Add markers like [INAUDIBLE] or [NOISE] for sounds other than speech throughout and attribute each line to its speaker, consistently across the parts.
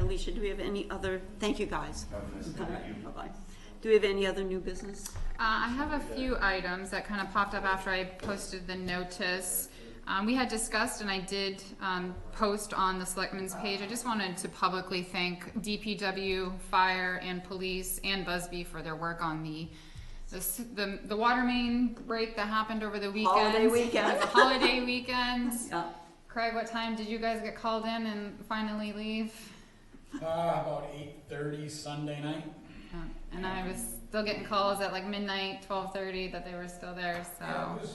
Speaker 1: Alicia, do we have any other, thank you guys.
Speaker 2: Have a nice day.
Speaker 1: Alright, Bye-bye. Do we have any other new business?
Speaker 3: Uh, I have a few items that kind of popped up after I posted the notice. Um, we had discussed, and I did um, post on the selectmen's page. I just wanted to publicly thank DPW, fire, and police, and Busby for their work on the the, s- the, the water main break that happened over the weekend.
Speaker 1: Holiday weekend.
Speaker 3: the [LAUGHS] holiday weekend.
Speaker 1: Yeah.
Speaker 3: Craig, what time did you guys get called in and finally leave?
Speaker 4: Uh, about eight thirty Sunday night.
Speaker 3: Yeah. Uh, And I was still getting calls at like midnight, twelve thirty, that they were still there. So.
Speaker 4: Yeah, it was,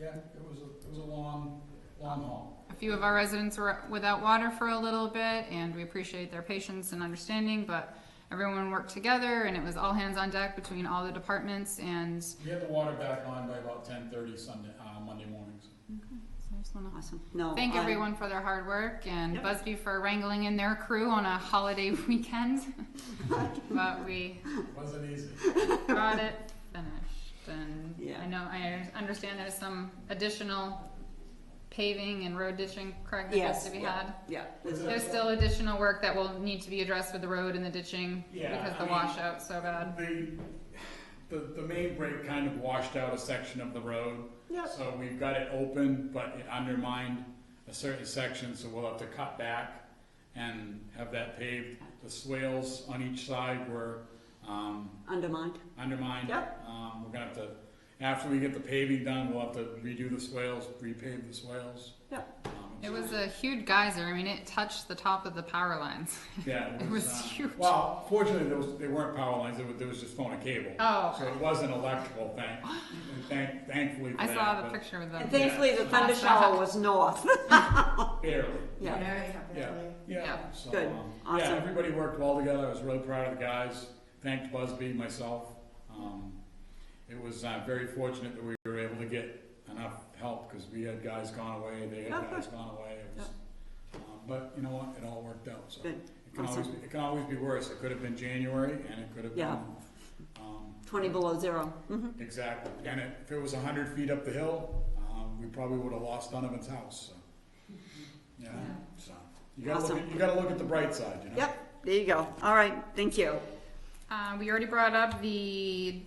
Speaker 4: yeah, it was, a- it was a long, long haul.
Speaker 3: A few of our residents were without water for a little bit, and we appreciate their patience and understanding, but everyone worked together, and it was all hands on deck between all the departments, and
Speaker 4: We had the water back on by about ten thirty Sunday, uh, Monday mornings.
Speaker 3: so I just wanna
Speaker 1: Awesome. No.
Speaker 3: thank
Speaker 1: I-
Speaker 3: everyone for their hard work, and
Speaker 1: Yep.
Speaker 3: Busby for wrangling in their crew on a holiday [LAUGHS] weekend.
Speaker 1: [LAUGHS]
Speaker 3: But we
Speaker 4: It wasn't easy.
Speaker 3: got it finished, and
Speaker 1: Yeah.
Speaker 3: I know, I understand there's some additional paving and road ditching, Craig, that has
Speaker 1: Yes.
Speaker 3: to be
Speaker 1: yeah,
Speaker 3: had.
Speaker 1: Yeah.
Speaker 4: Was it-
Speaker 3: There's still additional work that will need to be addressed with the road and the ditching
Speaker 4: Yeah,
Speaker 3: because
Speaker 4: I
Speaker 3: the
Speaker 4: mean-
Speaker 3: washout's so bad.
Speaker 4: The, the, the main break kind of washed out a section of the road.
Speaker 1: Yep.
Speaker 4: So we've got it open, but it undermined a certain section, so we'll have to cut back and have that paved. The swales on each side were, um,
Speaker 1: Undermined.
Speaker 4: undermined.
Speaker 1: Yep.
Speaker 4: Um, we're gonna have to, after we get the paving done, we'll have to redo the swales, repave the swales.
Speaker 1: Yep.
Speaker 4: Um,
Speaker 3: It was a huge geyser. I mean, it touched the top of the power lines. [LAUGHS]
Speaker 4: Yeah.
Speaker 3: it was
Speaker 4: uh,
Speaker 3: huge.
Speaker 4: Well, fortunately, there was, there weren't power lines, there was, there was just phone and cable.
Speaker 3: Oh.
Speaker 4: So it was an electrical thing, and thank, thankfully for
Speaker 3: I
Speaker 4: that,
Speaker 3: saw the
Speaker 4: but
Speaker 3: picture of them.
Speaker 1: And thankfully, the thunder shower was north. [LAUGHS]
Speaker 4: Barely,
Speaker 1: Yeah.
Speaker 4: yeah, yeah.
Speaker 3: Yeah.
Speaker 4: So,
Speaker 1: Good.
Speaker 4: um,
Speaker 1: Awesome.
Speaker 4: Yeah, everybody worked well together, I was really proud of the guys, thanked Busby, myself. Um, It was, uh, very fortunate that we were able to get enough help, because we had guys gone away, they had
Speaker 1: Okay.
Speaker 4: guys gone away, it was, um, but you know what, it all worked out, so.
Speaker 1: Good.
Speaker 4: It can always,
Speaker 1: Awesome.
Speaker 4: be- it can always be worse, it could have been January, and it could have
Speaker 1: Yeah.
Speaker 4: been, um,
Speaker 1: Twenty below zero. Mhm.
Speaker 4: Exactly, and it- if it was a hundred feet up the hill, um, we probably would have lost Donovan's house, so. Yeah, so, you gotta look, at- you gotta look at the bright side, you know?
Speaker 1: Yep, there you go. All right, thank you.
Speaker 3: Uh, we already brought up the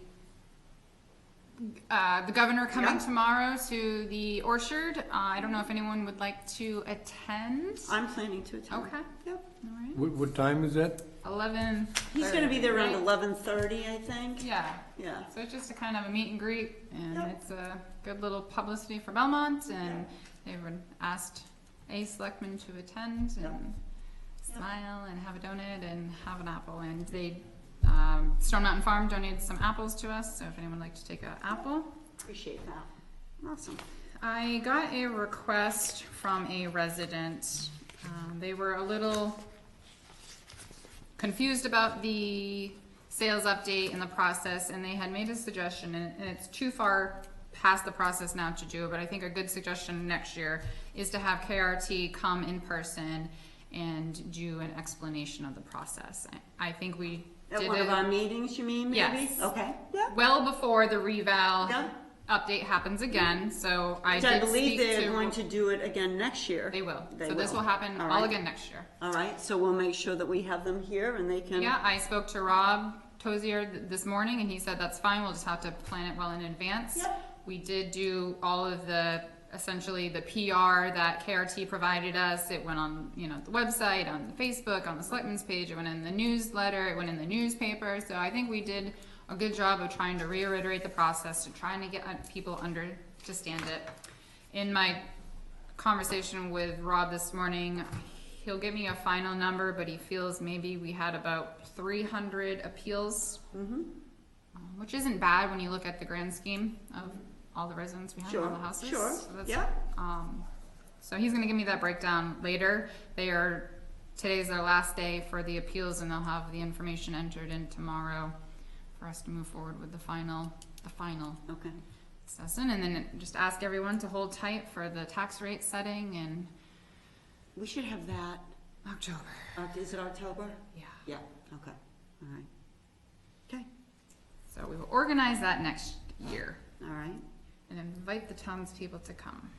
Speaker 3: uh, the governor coming
Speaker 1: Yeah.
Speaker 3: tomorrow to the orchard. Uh, I don't know if anyone would like to attend.
Speaker 1: I'm planning to attend.
Speaker 3: Okay.
Speaker 1: Yep.
Speaker 3: All right.
Speaker 5: What, what time is that?
Speaker 3: Eleven.
Speaker 1: He's gonna be there around
Speaker 3: right?
Speaker 1: eleven thirty, I think.
Speaker 3: Yeah.
Speaker 1: Yeah.
Speaker 3: So it's just a kind of a meet and greet, and
Speaker 1: Yep.
Speaker 3: it's a good little publicity for Belmont, and they were asked a selectman to attend and
Speaker 1: Yep.
Speaker 3: smile and have a donut and have an apple, and they um, Stone Mountain Farm donated some apples to us, so if anyone would like to take an apple.
Speaker 1: Appreciate that. Awesome.
Speaker 3: I got a request from a resident. Um, they were a little confused about the sales update and the process, and they had made a suggestion, and and it's too far past the process now to do, it, but I think a good suggestion next year is to have KRT come in person and do an explanation of the process. I- I think we did
Speaker 1: At
Speaker 3: it.
Speaker 1: one of our meetings, you mean, maybe?
Speaker 3: Yes.
Speaker 1: Okay, yeah.
Speaker 3: well before the reval
Speaker 1: Yeah.
Speaker 3: update happens again. So I
Speaker 1: Which I
Speaker 3: did
Speaker 1: believe
Speaker 3: speak
Speaker 1: they're
Speaker 3: to-
Speaker 1: going to do it again next year.
Speaker 3: They will.
Speaker 1: They
Speaker 3: so this will happen all,
Speaker 1: right.
Speaker 3: again next year.
Speaker 1: All right, so we'll make sure that we have them here and they can.
Speaker 3: Yeah, I spoke to Rob Tozier th- this morning, and he said that's fine. We'll just have to plan it well in advance.
Speaker 1: Yep.
Speaker 3: We did do all of the essentially the PR that KRT provided us. It went on you know the website, on the Facebook, on the Selectmen's page. It went in the newsletter. It went in the newspaper. So I think we did a good job of trying to reiterate the process and trying to get uh, people under to stand it. In my conversation with Rob this morning. He'll give me a final number, but he feels maybe we had about 300 appeals, um, which isn't bad when you look at the grand scheme of all the residents we have, all
Speaker 1: Sure,
Speaker 3: the houses.
Speaker 1: sure,
Speaker 3: So that's-
Speaker 1: yeah.
Speaker 3: Um, so he's going to give me that breakdown later. They are today's their last day for the appeals, and they'll have the information entered in tomorrow for us to move forward with the final, the final
Speaker 1: Okay,
Speaker 3: session, and then just ask everyone to hold tight for the tax rate setting in
Speaker 1: we should have that,
Speaker 3: October.
Speaker 1: Oct- is it October?
Speaker 3: Yeah.
Speaker 1: Yeah, okay, all right. Okay,
Speaker 3: So we will organize that next year
Speaker 1: all right,
Speaker 3: and invite the townspeople to come.